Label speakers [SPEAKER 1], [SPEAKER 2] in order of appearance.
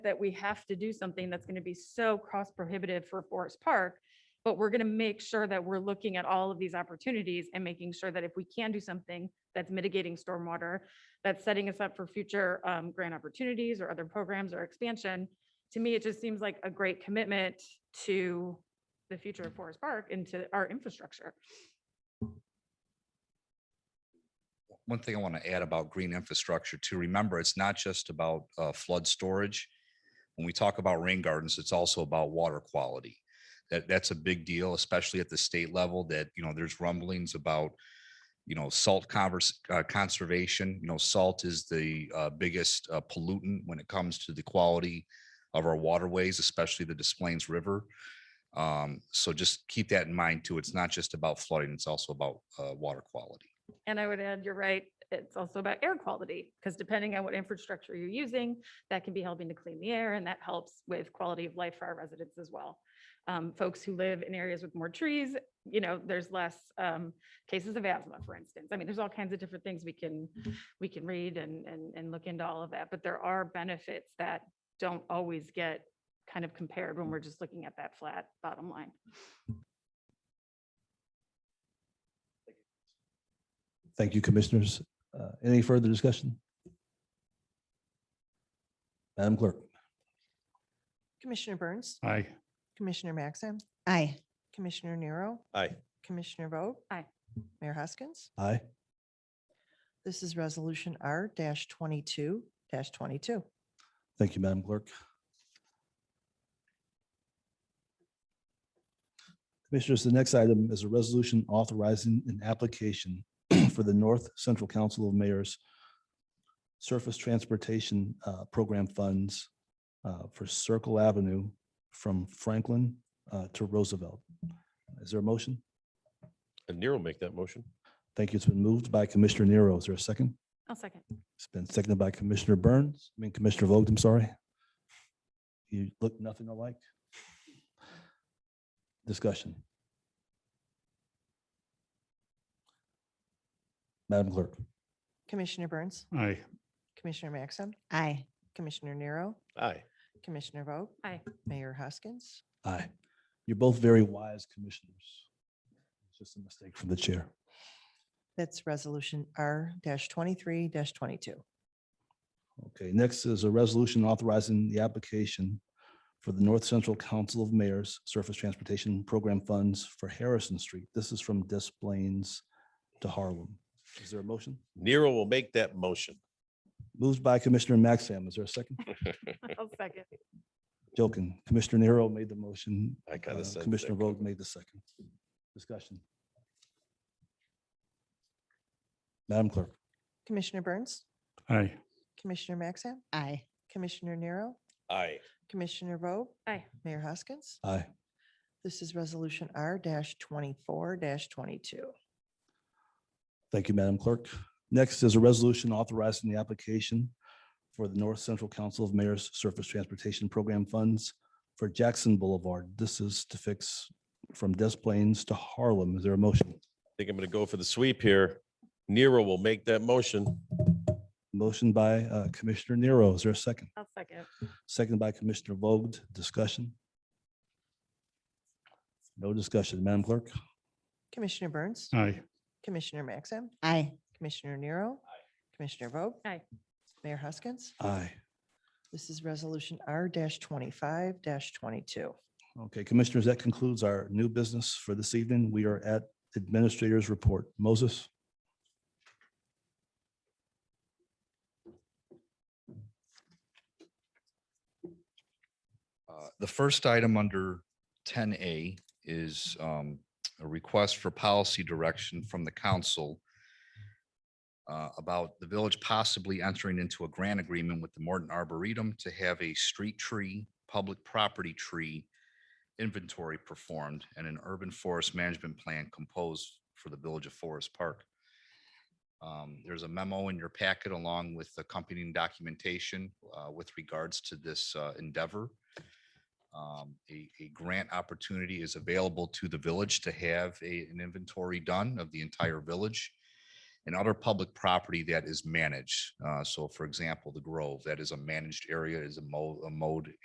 [SPEAKER 1] that we have to do something that's going to be so cost prohibitive for Forest Park. But we're going to make sure that we're looking at all of these opportunities and making sure that if we can do something that's mitigating stormwater, that's setting us up for future um, grant opportunities or other programs or expansion. To me, it just seems like a great commitment to the future of Forest Park and to our infrastructure.
[SPEAKER 2] one thing I want to add about green infrastructure too, remember, it's not just about uh, flood storage. When we talk about rain gardens, it's also about water quality. That, that's a big deal, especially at the state level that, you know, there's rumblings about, you know, salt converse, uh, conservation, you know, salt is the uh, biggest uh, pollutant when it comes to the quality of our waterways, especially the Des Plaines River. Um, So just keep that in mind too. It's not just about flooding, it's also about uh, water quality.
[SPEAKER 1] And I would add, you're right, it's also about air quality, because depending on what infrastructure you're using, that can be helping to clean the air, and that helps with quality of life for our residents as well. Um, folks who live in areas with more trees, you know, there's less, um, cases of asthma, for instance. I mean, there's all kinds of different things we can, we can read and, and, and look into all of that, but there are benefits that don't always get kind of compared when we're just looking at that flat bottom line.
[SPEAKER 3] Thank you, Commissioners. Uh, Any further discussion? Madam Clerk.
[SPEAKER 4] Commissioner Burns,
[SPEAKER 5] Aye.
[SPEAKER 4] Commissioner Maxim,
[SPEAKER 6] Aye.
[SPEAKER 4] Commissioner Nero,
[SPEAKER 3] Aye.
[SPEAKER 4] Commissioner Vogt.
[SPEAKER 1] Aye.
[SPEAKER 4] Mayor Hoskins.
[SPEAKER 3] Aye.
[SPEAKER 4] This is Resolution R twenty-two twenty-two.
[SPEAKER 3] Thank you, Madam Clerk. Commissioners, the next item is a resolution authorizing an application for the North Central Council of Mayors Surface Transportation uh, Program Funds uh, for Circle Avenue from Franklin uh, to Roosevelt. Is there a motion?
[SPEAKER 7] And Nero make that motion.
[SPEAKER 3] Thank you. It's been moved by Commissioner Nero. Is there a second?
[SPEAKER 1] I'll second.
[SPEAKER 3] It's been seconded by Commissioner Burns, I mean Commissioner Vogt, I'm sorry. You look nothing alike. Discussion. Madam Clerk.
[SPEAKER 4] Commissioner Burns,
[SPEAKER 5] Aye.
[SPEAKER 4] Commissioner Maxim,
[SPEAKER 6] Aye.
[SPEAKER 4] Commissioner Nero,
[SPEAKER 7] Aye.
[SPEAKER 4] Commissioner Vogt.
[SPEAKER 1] Aye.
[SPEAKER 4] Mayor Hoskins.
[SPEAKER 3] Aye. You're both very wise commissioners. It's just a mistake from the chair.
[SPEAKER 4] That's Resolution R twenty-three twenty-two.
[SPEAKER 3] Okay, next is a resolution authorizing the application for the North Central Council of Mayors Surface Transportation Program Funds for Harrison Street. This is from Des Plaines to Harlem. Is there a motion?
[SPEAKER 7] Nero will make that motion.
[SPEAKER 3] Moved by Commissioner Maxim. Is there a second?
[SPEAKER 1] I'll second.
[SPEAKER 3] Joking. Commissioner Nero made the motion.
[SPEAKER 7] I kind
[SPEAKER 3] uh,
[SPEAKER 7] of said.
[SPEAKER 3] Commissioner Vogt made the second. Discussion. Madam Clerk.
[SPEAKER 4] Commissioner Burns,
[SPEAKER 5] Aye.
[SPEAKER 4] Commissioner Maxim,
[SPEAKER 6] Aye.
[SPEAKER 4] Commissioner Nero,
[SPEAKER 7] Aye.
[SPEAKER 4] Commissioner Vogt.
[SPEAKER 1] Aye.
[SPEAKER 4] Mayor Hoskins.
[SPEAKER 3] Aye.
[SPEAKER 4] This is Resolution R twenty-four twenty-two.
[SPEAKER 3] Thank you, Madam Clerk. Next is a resolution authorizing the application for the North Central Council of Mayors Surface Transportation Program Funds for Jackson Boulevard. This is to fix from Des Plaines to Harlem. Is there a motion?
[SPEAKER 7] Think I'm going to go for the sweep here. Nero will make that motion.
[SPEAKER 3] Motion by uh, Commissioner Nero. Is there a second?
[SPEAKER 1] I'll second.
[SPEAKER 3] Seconded by Commissioner Vogt. Discussion? No discussion, Madam Clerk.
[SPEAKER 4] Commissioner Burns,
[SPEAKER 5] Aye.
[SPEAKER 4] Commissioner Maxim,
[SPEAKER 6] Aye.
[SPEAKER 4] Commissioner Nero. Commissioner Vogt.
[SPEAKER 1] Aye.
[SPEAKER 4] Mayor Huskins.
[SPEAKER 3] Aye.
[SPEAKER 4] This is Resolution R twenty-five twenty-two.
[SPEAKER 3] Okay, Commissioners, that concludes our new business for this evening. We are at Administrator's Report. Moses?
[SPEAKER 2] Uh, The first item under ten A is um, a request for policy direction from the council uh, about the village possibly entering into a grant agreement with the Morton Arboretum to have a street tree, public property tree inventory performed and an urban forest management plan composed for the Village of Forest Park. Um, There's a memo in your packet along with accompanying documentation uh, with regards to this uh, endeavor um, a, a grant opportunity is available to the village to have a, an inventory done of the entire village. and other public property that is managed. Uh, So for example, the Grove, that is a managed area, is a mode, a mode